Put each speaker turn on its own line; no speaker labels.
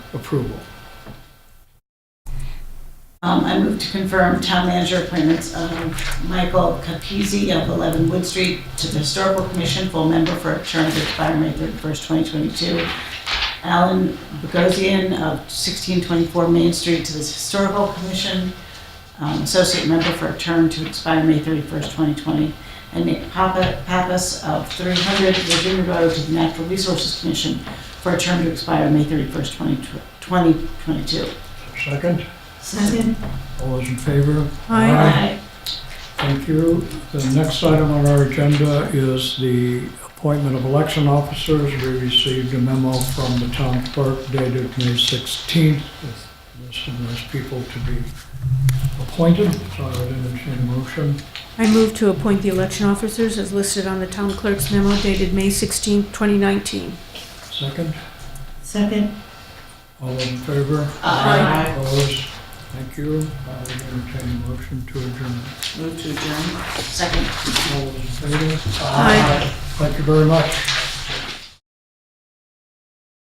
approval.
Um, I move to confirm town manager appointments of Michael Capizzi of 11 Wood Street to the Historical Commission, full member for a term to expire May 31st, 2022. Alan Bogosian of 1624 Main Street to the Historical Commission, um, associate member for a term to expire May 31st, 2020. And Nick Papa- Pappas of 300 Virginia Road to the Natural Resources Commission for a term to expire May 31st, 2022.
Second,
Second.
all those in favor?
Aye.
Thank you. The next item on our agenda is the appointment of election officers. We received a memo from the town clerk dated May 16th with a list of those people to be appointed. So I would entertain a motion.
I move to appoint the election officers as listed on the town clerk's memo dated May 16, 2019.
Second,
Second,
all those in favor?
Aye.
Opposed? Thank you. I would entertain a motion to adjourn.
Second.
All those in favor?
Aye.
Thank you very much.